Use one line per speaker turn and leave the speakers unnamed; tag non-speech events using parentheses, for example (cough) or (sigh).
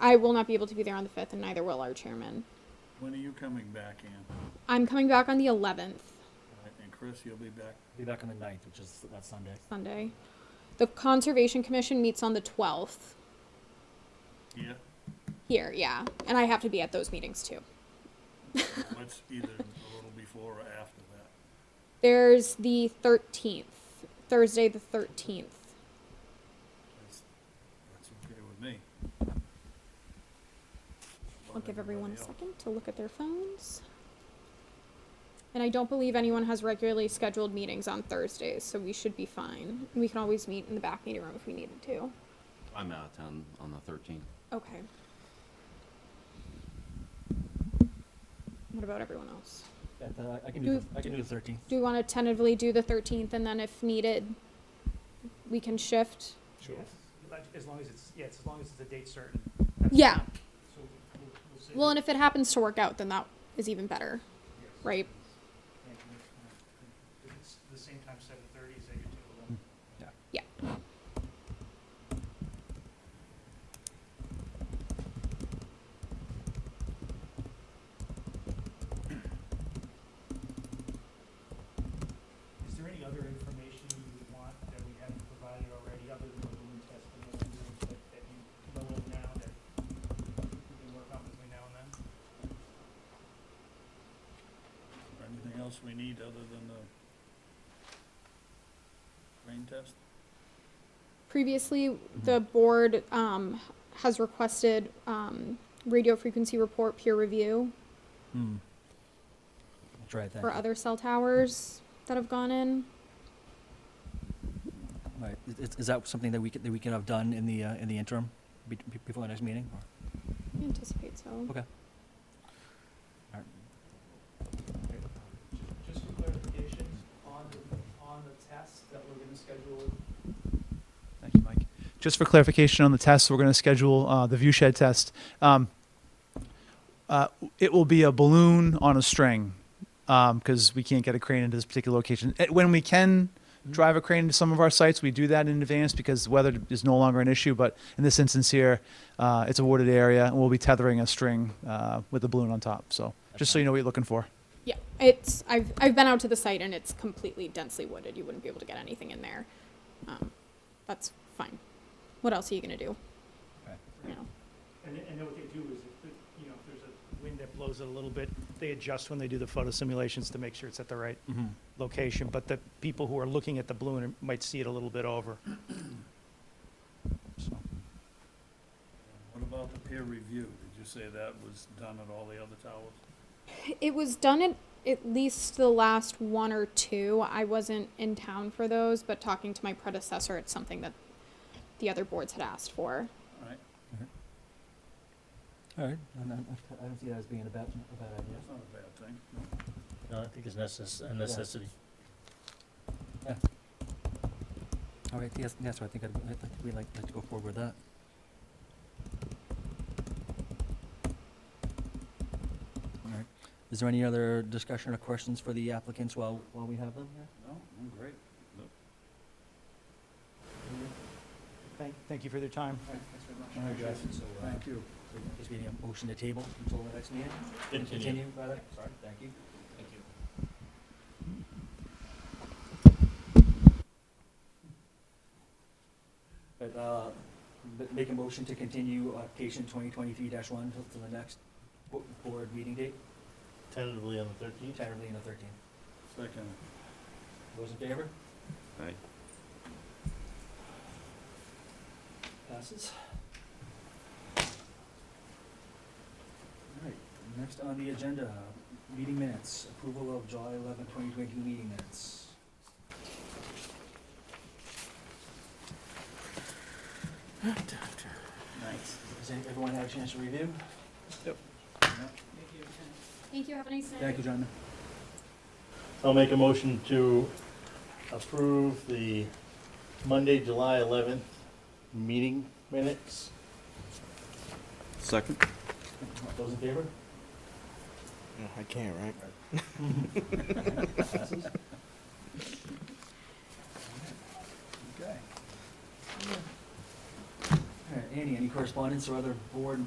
I will not be able to be there on the 5th, and neither will our chairman.
When are you coming back, Ann?
I'm coming back on the 11th,
And Chris, you'll be back
Be back on the ninth, which is that Sunday.
Sunday. The Conservation Commission meets on the 12th
here?
here, yeah. And I have to be at those meetings too.
What's either a little before or after that?
There's the 13th, Thursday the 13th.
That's, that's okay with me.
I'll give everyone a
Everybody else.
second to look at their phones. And I don't believe anyone has regularly scheduled meetings on Thursdays, so we should be fine. We can always meet in the back meeting room if we needed to.
I'm out of town on the thirteenth.
Okay. What about everyone else?
Yeah, the- I can
Do-
do, the- I can do the thirteenth.
Do we want to tentatively do the 13th and then if needed, we can shift?
Sure.
Yes, like, As long as it's, yeah, it's as long as it's a date certain. that's
Yeah.
fine. So we'll- we'll say
Well, and
that-
if it happens to work out, then that is even better,
yes.
right?
Yeah, can we- If it's the same time, seven thirty, is that your typical? Is there any other information you would want that we haven't provided already, other than the balloon test, and those things that, that you know of now that we can work on between now and then?
Anything else we need other than the rain test?
Previously, the board um, has requested um, radio frequency report peer review
Hmm. I'll try that.
for other cell towers that have gone in.
Right, Is- is, is that something that we could, that we could have done in the, uh, in the interim, be- be- before the next meeting? or-
I anticipate so.
Okay.
Ju- Just for clarification, on the, on the test that we're gonna schedule,
Thank you, Mike.
just for clarification on the test, we're going to schedule uh, the view shed test. Um, uh, it will be a balloon on a string because we can't get a crane into this particular location. Eh, When we can drive a crane to some of our sites, we do that in advance because weather is no longer an issue. But in this instance here, uh, it's a wooded area, and we'll be tethering a string uh, with a balloon on top. So just so you know what you're looking for.
Yeah, it's I've I've been out to the site and it's completely densely wooded. You wouldn't be able to get anything in there. Um, that's fine. What else are you gonna do?
Okay.
You know,
And, and then what they do is, if, the- you know, if there's a wind that blows it a little bit, they adjust when they do the photo simulations to make sure it's at the right
Mm-hmm.
location, but the people who are looking at the balloon might see it a little bit over.
So,
What about the peer review? Did you say that was done at all the other towers?
it was done at at least the last one or two. I wasn't in town for those, but talking to my predecessor, it's something that the other boards had asked for.
All right,
All right, I don't, I don't see that as being a bad, a bad idea.
that's not a bad thing. No.
No, I think it's necess- a necessity.
All right, yes, yes, I think I'd, I'd like, we'd like, like to go forward with that. All right, is there any other discussion or questions for the applicants while, while we have them here?
No, I'm great.
Thank, thank you for their time.
Thanks very much.
All right, guys.
So, uh,
Thank you.
just need a motion to table until the next meeting? Continue, rather, sorry, thank you.
Thank you.
But, uh, but make a motion to continue application twenty twenty-three one till, till the next bo- board meeting date,
Tentatively on the thirteenth?
entirely on the thirteenth.
Second.
Those in favor?
Aye.
Passes. All right, next on the agenda, meeting minutes, approval of July 11, 2022 meeting minutes.
Nice.
Has any- everyone had a chance to review?
Thank you. Have a nice night.
Thank you, John.
I'll make a motion to approve the Monday, July eleventh meeting minutes.
Second?
Those in favor?
Uh, I can't, right? (laughs)
Passes.
Okay.
All right, Annie, any correspondence or other board